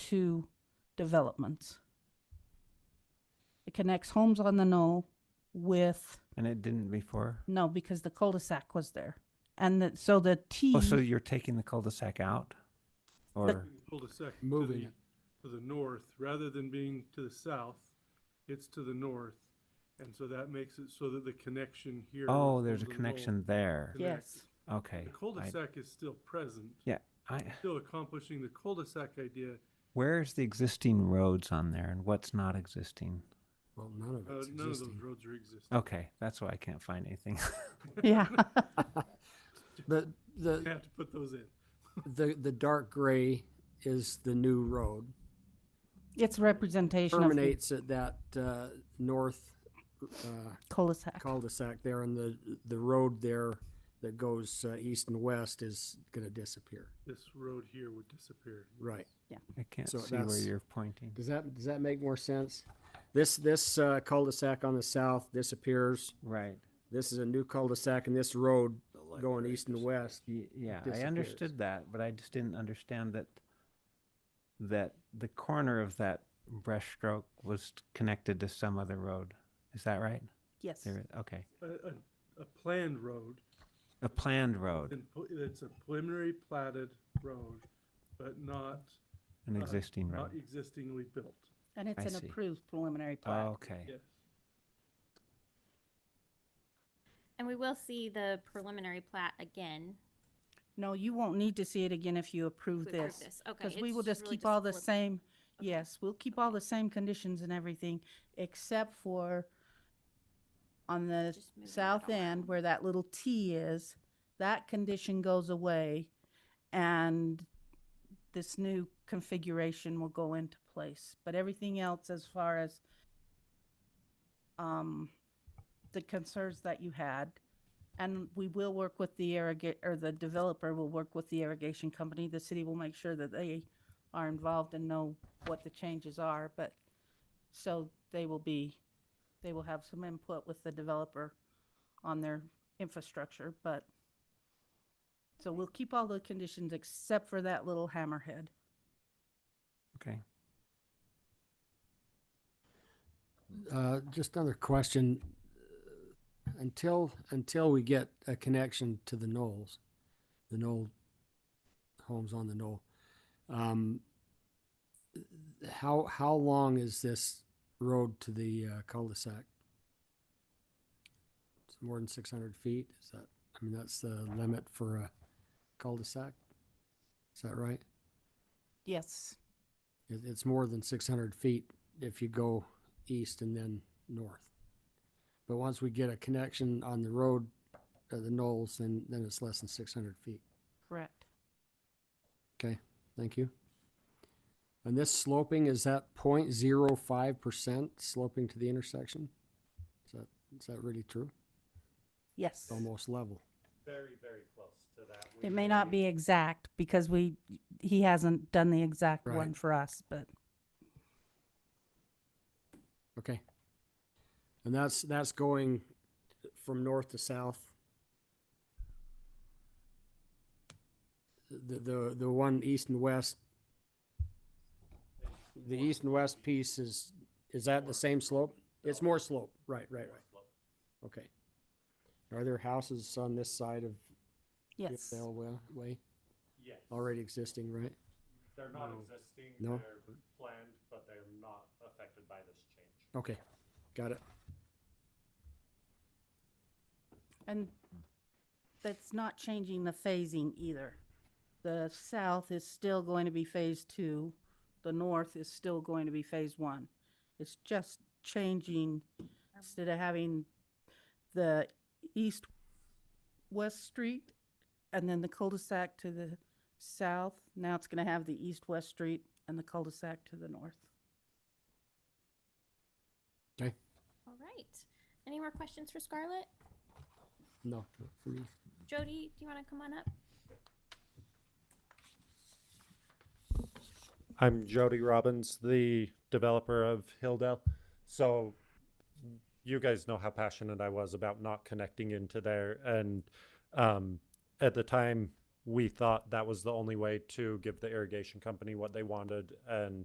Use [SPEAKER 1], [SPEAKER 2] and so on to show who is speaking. [SPEAKER 1] two developments. It connects Homes on the Knoll with,
[SPEAKER 2] And it didn't before.
[SPEAKER 1] no, because the cul-de-sac was there. And that, so the T,
[SPEAKER 2] Oh, so you're taking the cul-de-sac out? Or,
[SPEAKER 3] Cul-de-sac. to
[SPEAKER 4] Moving
[SPEAKER 3] the-
[SPEAKER 4] it.
[SPEAKER 3] To the north, rather than being to the south, it's to the north. And so that makes it so that the connection here.
[SPEAKER 2] oh,
[SPEAKER 3] with
[SPEAKER 2] there's a
[SPEAKER 3] Golden Knoll
[SPEAKER 2] connection there.
[SPEAKER 3] connects.
[SPEAKER 1] Yes.
[SPEAKER 2] Okay.
[SPEAKER 3] The
[SPEAKER 2] I-
[SPEAKER 3] cul-de-sac is still present,
[SPEAKER 2] Yeah, I,
[SPEAKER 3] still accomplishing the cul-de-sac idea.
[SPEAKER 2] where's the existing roads on there and what's not existing?
[SPEAKER 4] Well, none of
[SPEAKER 3] Uh,
[SPEAKER 4] it's
[SPEAKER 3] None of those
[SPEAKER 4] existing.
[SPEAKER 3] roads are existing.
[SPEAKER 2] Okay, that's why I can't find anything.
[SPEAKER 1] yeah,
[SPEAKER 4] The,
[SPEAKER 3] You
[SPEAKER 4] the,
[SPEAKER 3] have to put those in.
[SPEAKER 4] the, the dark gray is the new road.
[SPEAKER 1] it's representation of the
[SPEAKER 4] Terminates at that, uh, north, uh,
[SPEAKER 1] cul-de-sac.
[SPEAKER 4] cul-de-sac there and the, the road there that goes, uh, east and west is gonna disappear.
[SPEAKER 3] This road here would disappear.
[SPEAKER 4] Right.
[SPEAKER 2] I can't
[SPEAKER 4] So
[SPEAKER 2] see where
[SPEAKER 4] that's-
[SPEAKER 2] you're pointing.
[SPEAKER 4] Does that, does that make more sense? This, this, uh, cul-de-sac on the south disappears.
[SPEAKER 2] Right.
[SPEAKER 4] This is a new cul-de-sac and this road going east and west.
[SPEAKER 2] Y- Yeah, I
[SPEAKER 4] disappears.
[SPEAKER 2] understood that, but I just didn't understand that, that the corner of that brushstroke was connected to some other road. Is that right?
[SPEAKER 1] Yes,
[SPEAKER 2] There, okay.
[SPEAKER 3] A, a, a planned road,
[SPEAKER 2] A planned road,
[SPEAKER 3] and pl- it's a preliminary platted road, but not,
[SPEAKER 2] an
[SPEAKER 3] uh,
[SPEAKER 2] existing road.
[SPEAKER 3] not existingly built.
[SPEAKER 1] and it's
[SPEAKER 2] I
[SPEAKER 1] an
[SPEAKER 2] see. Oh.
[SPEAKER 1] approved preliminary plat.
[SPEAKER 2] Ah, Okay.
[SPEAKER 3] Yes.
[SPEAKER 5] And we will see the preliminary plat again.
[SPEAKER 1] No, you won't need to see it again if you approve
[SPEAKER 5] to approve
[SPEAKER 1] this.
[SPEAKER 5] Okay.
[SPEAKER 1] Because we will
[SPEAKER 5] it's
[SPEAKER 1] just
[SPEAKER 5] really
[SPEAKER 1] keep all
[SPEAKER 5] a
[SPEAKER 1] the
[SPEAKER 5] flip.
[SPEAKER 1] same,
[SPEAKER 5] Okay.
[SPEAKER 1] yes, we'll keep all the same conditions and everything, except for on the
[SPEAKER 5] Just moving it
[SPEAKER 1] south end
[SPEAKER 5] around.
[SPEAKER 1] where that little T is, that condition goes away and this new configuration will go into place. But everything else as far as um, the concerns that you had, and we will work with the irrigate, or the developer will work with the irrigation company. The city will make sure that they are involved and know what the changes are, but, so they will be, they will have some input with the developer on their infrastructure, but, so we'll keep all the conditions except for that little hammerhead.
[SPEAKER 2] Okay.
[SPEAKER 4] Uh, just another question. Until, until we get a connection to the Knolls, the Knoll, homes on the Knoll, um, how, how long is this road to the uh, cul-de-sac? It's more than six hundred feet, is that, I mean, that's the limit for a cul-de-sac? Is that right?
[SPEAKER 1] Yes,
[SPEAKER 4] It, it's more than six hundred feet if you go east and then north. But once we get a connection on the road, uh, the Knolls, then, then it's less than six hundred feet.
[SPEAKER 1] correct.
[SPEAKER 4] Okay, thank you. And this sloping, is that point zero five percent sloping to the intersection? Is that, is that really true?
[SPEAKER 1] Yes.
[SPEAKER 4] It's almost level.
[SPEAKER 6] very, very close to that. We
[SPEAKER 1] It may not
[SPEAKER 6] may-
[SPEAKER 1] be exact because we, he hasn't done the exact
[SPEAKER 4] Right.
[SPEAKER 1] one for us, but
[SPEAKER 4] Okay. And that's, that's going from north to south. The, the, the one east and west. The east and west piece is, is that the same slope? It's more slope, right, right, right. Okay. Are there houses on this side of
[SPEAKER 1] yes.
[SPEAKER 4] Giffdale Wa- Way
[SPEAKER 6] Yes.
[SPEAKER 4] already existing, right?
[SPEAKER 6] They're not
[SPEAKER 3] No.
[SPEAKER 6] existing,
[SPEAKER 4] No.
[SPEAKER 6] they're planned, but they're not affected by this change.
[SPEAKER 4] Okay, got it.
[SPEAKER 1] And that's not changing the phasing either. The south is still going to be phase two, the north is still going to be phase one. It's just changing, instead of having the east, west street, and then the cul-de-sac to the south, now it's gonna have the east-west street and the cul-de-sac to the north.
[SPEAKER 4] Okay,
[SPEAKER 5] All right. Any more questions for Scarlett?
[SPEAKER 4] no, not for me.
[SPEAKER 5] Jody, do you want to come on up?
[SPEAKER 6] I'm Jody Robbins, the developer of Hilldale. So you guys know how passionate I was about not connecting into there. And um, at the time, we thought that was the only way to give the irrigation company what they wanted and